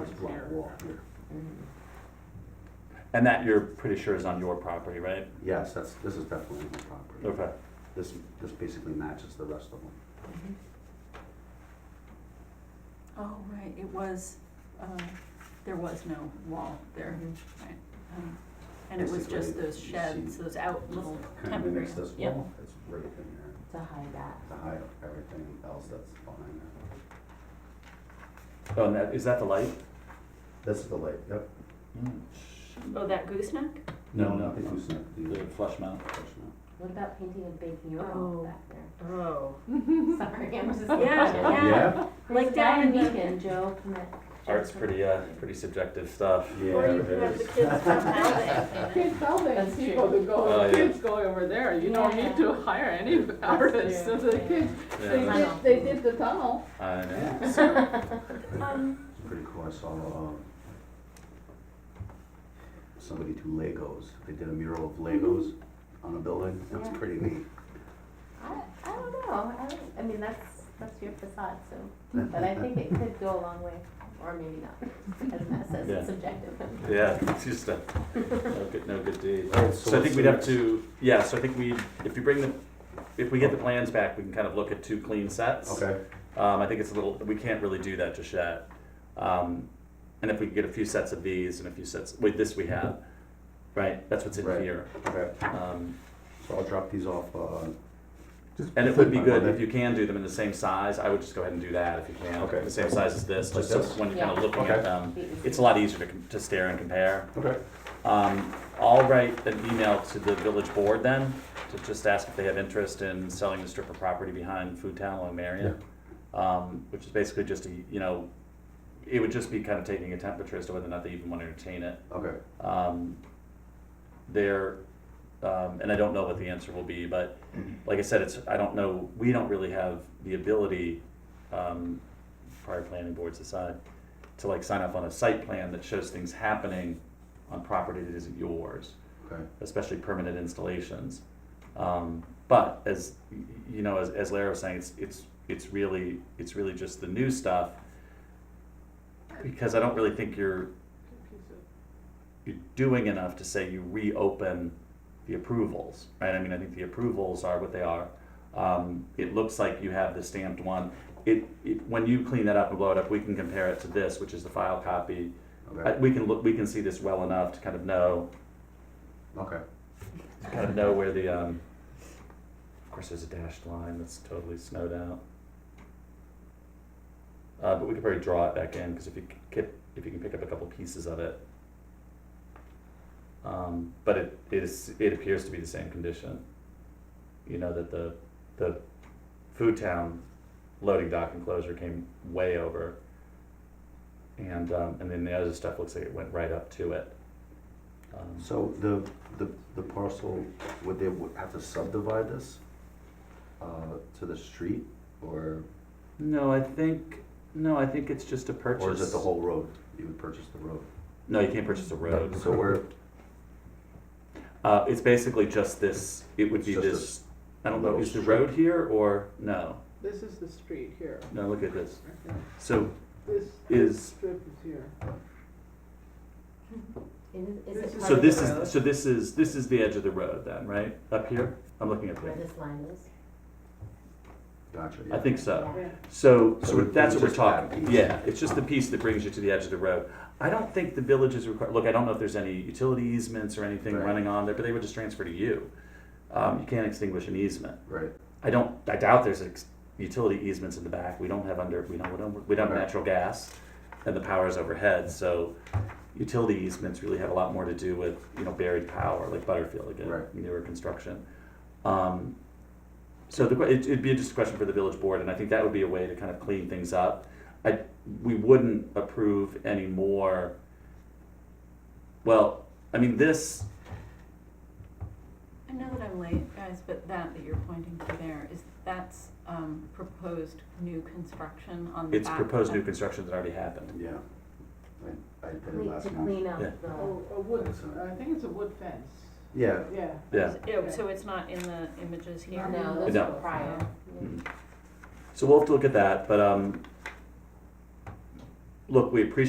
this black wall here. And that you're pretty sure is on your property, right? Yes, that's, this is definitely my property. Okay. This, this basically matches the rest of them. Mm-hmm. Oh, right, it was, uh, there was no wall there, right? Um, And it was just Basically, those you sheds, see- those out little Kind of temporary. mimics this Yep. wall, it's right in there, To hide that. to hide everything else that's behind there. Oh, and that, is that the light? This is the lake, yep. Mm-hmm. Oh, that gooseneck? No, No, no, nothing was in it. The flush mount. What about painting a big Oh. mural back there? Oh. Sorry, I'm just. Yeah, yeah. Yeah, Like down in the- Weekend, Joe. come at- Art's pretty, uh, pretty subjective stuff. yeah. Or you it could have the is. kids from Alvin. Kids tell That's these people true. to go, Oh, yeah. kids go over there, you don't need to hire any artists, true. so the kids, they Yeah, did, that's- they did the tunnel. I know. Yeah, it's Um, pretty cool, I saw, um, somebody do Legos, they did a mural of Legos on a building, that's Yeah. pretty neat. I, I don't know, I don't, I mean, that's, that's your facade, so, Mm-hmm. but I think it could go a long way, or maybe not, as Matt says, Yeah. it's subjective. Yeah, it's just a, no good, no good deed. Alright, so So I what's think the we'd have next- to, yeah, so I think we, if you bring the, if we get the plans back, we can kind of look at two clean sets. Okay, Um, I think it's a little, we can't really do that just yet. Um, and if we could get a few sets of these and a few sets, wait, this we have, right? That's what's in Right. here. okay, Um, so I'll drop these off, uh, and it would be By good if Monday? you can do them in the same size. I would just go ahead and do that if you can. Okay. The same size as this, Like just so this? when you're kind Yeah. of looking Okay. at them, Be easy. it's a lot easier to, com- to stare and compare. okay, Um, I'll write an email to the village board then, to just ask if they have interest in selling the strip of property behind Food Town along Marion. Um, which is basically just a, you know, it would just be kind of taking a temperature as to whether or not they even want to entertain it. okay, Um, there, um, and I don't know what the answer will be, but like I said, it's, I don't know, we don't really have the ability, um, prior planning boards aside, to like sign off on a site plan that shows things happening on property that isn't yours, okay. especially permanent installations. Um, but as, y- you know, as, as Lara was saying, it's, it's, it's really, it's really just the new stuff. Because I don't really think you're you're doing enough to say you reopen the approvals, right? I mean, I think the approvals are what they are. Um, it looks like you have the stamped one. It, it, when you clean that up and blow it up, we can compare it to this, which is the file copy. Uh, Okay, we can look, we can see this well enough to kind of know, okay, to kind of know where the, um, of course, there's a dashed line that's totally snowed out. Uh, but we could probably draw it back in, because if you c- kip, if you can pick up a couple pieces of it. Um, but it, it is, it appears to be the same condition. You know, that the, the food town loading dock enclosure came way over. And, um, and then the other stuff looks like it went right up to it. Um, so the, the, the parcel, would they w- have to subdivide this, uh, to the street, or, No, I think, no, I think it's just a purchase. or is it the whole road? You would purchase the road? No, you can't purchase a road. So we're, Uh, it's basically just this, it would be It's just this, I don't know, little is the strip. road here or, no, This is the street here, no, look at this. Okay. So this is, strip is here. Is- Is it so part of this the road is, so this is, this is the edge of the road then, right? Up here? I'm looking at Where here. this line is? gotcha, yeah. I think so. Yeah. So, So so it- that's it's what we're just that talking, piece. yeah, it's just the piece that brings you to the edge of the road. I don't think the village is required, look, I don't know if there's any utility easements or anything Right. running on there, but they would just transfer to you. Um, you can't extinguish an easement. Right, I don't, I doubt there's ex- utility easements in the back, we don't have under, we don't, we don't, we don't have Right. natural gas, and the power is overhead, so utility easements really have a lot more to do with, you know, buried power, like Butterfield again, Right. newer construction. Um, so the, que- it- it'd be just a question for the village board, and I think that would be a way to kind of clean things up. I, we wouldn't approve any more, well, I mean, this, I know that I'm late, guys, but that that you're pointing to there is, that's, um, proposed new construction on the it's back. proposed new of- construction that already happened. yeah. I, I did it Clean- To last month. clean up Yeah. the. Oh, a wood, I think it's a wood fence, Yeah, yeah. Yeah. Yeah, Oh, so it's not in the images here? No, those No. were prior. Mm-hmm. Yeah. So we'll have to look at that, but, um, look, we appreciate